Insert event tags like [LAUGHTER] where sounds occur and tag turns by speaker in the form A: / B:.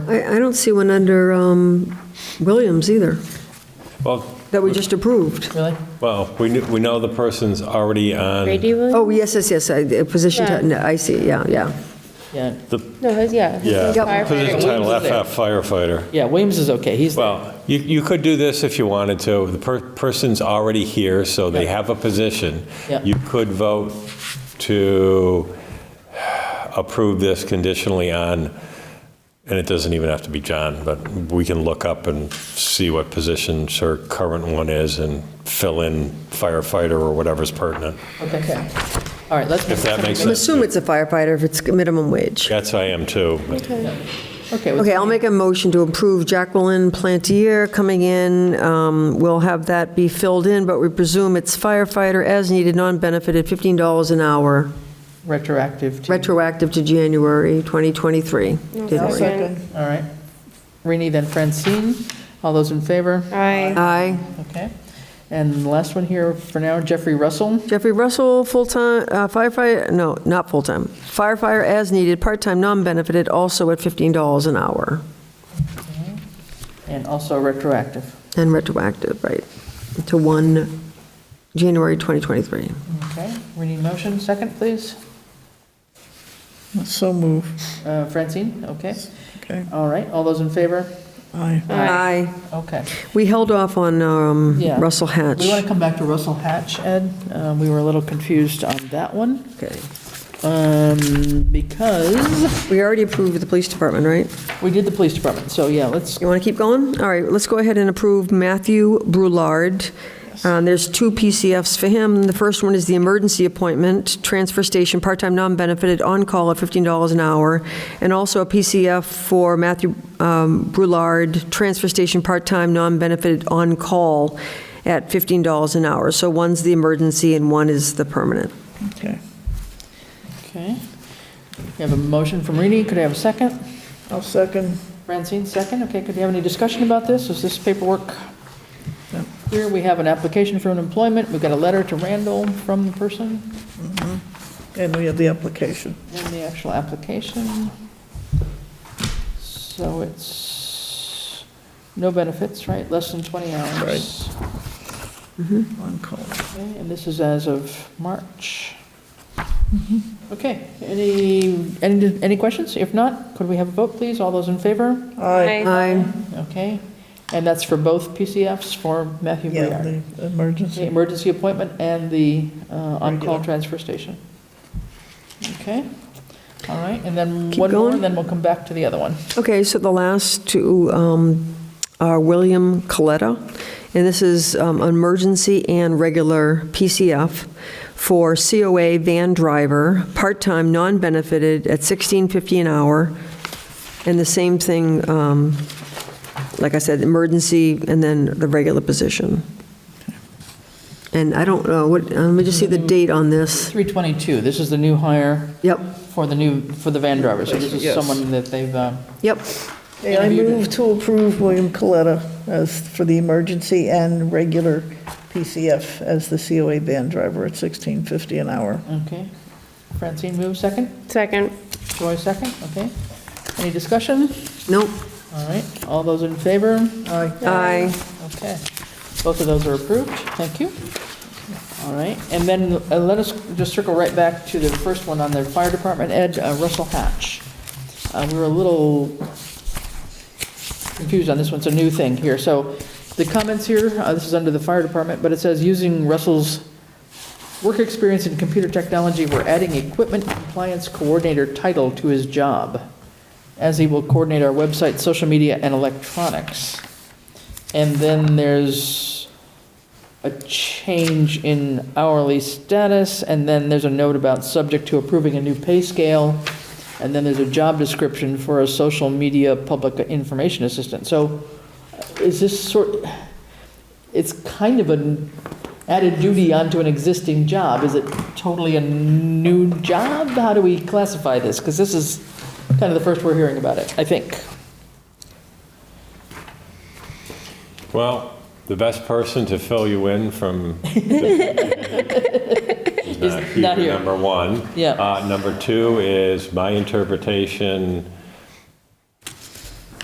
A: I, I don't see one under um, Williams either,
B: Well,
A: that we just approved.
C: Really?
B: well, we knew- we know the person's already on,
D: Brady Williams?
A: Oh, yes, yes, yes, I- the position, ti- no, I see, yeah, yeah.
C: Yeah,
D: No, his, yeah. his
B: yeah,
A: Yep.
B: position title
C: Williams is there.
B: FF firefighter.
C: yeah, Williams is okay, he's,
B: Well, you, you could do this if you wanted to. The per- person's already here, so they
C: Yeah.
B: have a position.
C: Yeah.
B: You could vote to approve this conditionally on, and it doesn't even have to be John, but we can look up and see what position her current one is and fill in firefighter or whatever's pertinent.
C: okay. All right, let's.
B: If that makes
A: I'm
B: sense.
A: assuming it's a firefighter if it's minimum wage.
B: That's I am too. but-
C: Okay, well,
A: Okay, I'll make a motion to approve Jacqueline Plantier coming in. Um, We'll have that be filled in, but we presume it's firefighter as needed, non-benefited, $15 an hour,
C: retroactive to, Oh,
A: retroactive to January 2023.
D: second.
C: all right. Rini, then Francine, all those in favor?
D: Aye.
A: Aye.
C: Okay. And the last one here for now, Jeffrey Russell,
A: Jeffrey Russell, full-time uh, firefighter, no, not full-time, firefighter as needed, part-time, non-benefited, also at $15 an hour,
C: and also retroactive.
A: and retroactive, right, to 1 January 2023.
C: Okay, Rini, motion, second, please.
E: So move,
C: Uh, Francine, okay.
E: okay,
C: All right, all those in favor?
E: aye.
A: Aye.
C: Okay.
A: We held off on um,
C: Yeah.
A: Russell Hatch.
C: We want to come back to Russell Hatch, Ed. Uh, We were a little confused on that one,
A: Okay.
C: um, because
A: We already approved the police department, right?
C: we did the police department, so yeah, let's,
A: You want to keep going? All right, let's go ahead and approve Matthew Brulard. Uh, There's two PCFs for him. The first one is the emergency appointment, transfer station, part-time, non-benefited, on-call at $15 an hour, and also a PCF for Matthew um, Brulard, transfer station, part-time, non-benefited, on-call at $15 an hour. So one's the emergency and one is the permanent.
E: Okay,
C: okay. We have a motion from Rini, could I have a second?
E: I'll second.
C: Francine, second, okay, could you have any discussion about this? Is this paperwork?
E: No.
C: Here, we have an application for an employment, we've got a letter to Randall from the person,
E: And we have the application.
C: and the actual application. So it's no benefits, right, less than 20 hours.
E: Right. On call.
C: Okay, and this is as of March.
A: Mm-hmm.
C: Okay, any, any, any questions? If not, could we have a vote, please? All those in favor?
E: Aye.
A: Aye.
C: Okay, and that's for both PCFs for Matthew
E: Yeah,
C: Briard.
E: the
C: The
E: emergency.
C: emergency appointment and the uh, on-call
E: Regular.
C: transfer station. Okay, all right, and then
A: Keep
C: one more,
A: going.
C: and then we'll come back to the other one.
A: Okay, so the last two um, are William Coletta, and this is um, emergency and regular PCF for COA van driver, part-time, non-benefited, at $16.50 an hour, and the same thing, um, like I said, emergency and then the regular position. And I don't know, what, uh, let me just see the date on this.
C: 322, this is the new hire
A: Yep,
C: for the new, for the van driver, so this is
E: Yes.
C: someone that they've, uh,
A: yep,
E: Hey, I move to approve William Coletta as, for the emergency and regular PCF as the COA van driver at 1650 an hour.
C: okay. Francine, move second?
D: Second.
C: Joy second, okay. Any discussion?
A: nope,
C: All right, all those in favor?
E: Aye.
A: aye.
C: Okay. Both of those are approved, thank you. All right, and then uh, let us just circle right back to the first one on the fire department, Ed uh, Russell Hatch. Uh, We were a little confused on this one, it's a new thing here. So the comments here, uh, this is under the fire department, but it says, using Russell's work experience in computer technology, we're adding equipment compliance coordinator title to his job, as he will coordinate our website, social media, and electronics. And then there's a change in hourly status, and then there's a note about subject to approving a new pay scale, and then there's a job description for a social media public information assistant. So uh, is this sort, it's kind of an added duty onto an existing job. Is it totally a new job? How do we classify this? Because this is kind of the first we're hearing about it, I think.
B: Well, the best person to fill you in from. [LAUGHS] Is
C: not here.
B: Number one.
C: Yeah.
B: Uh, Number two is my interpretation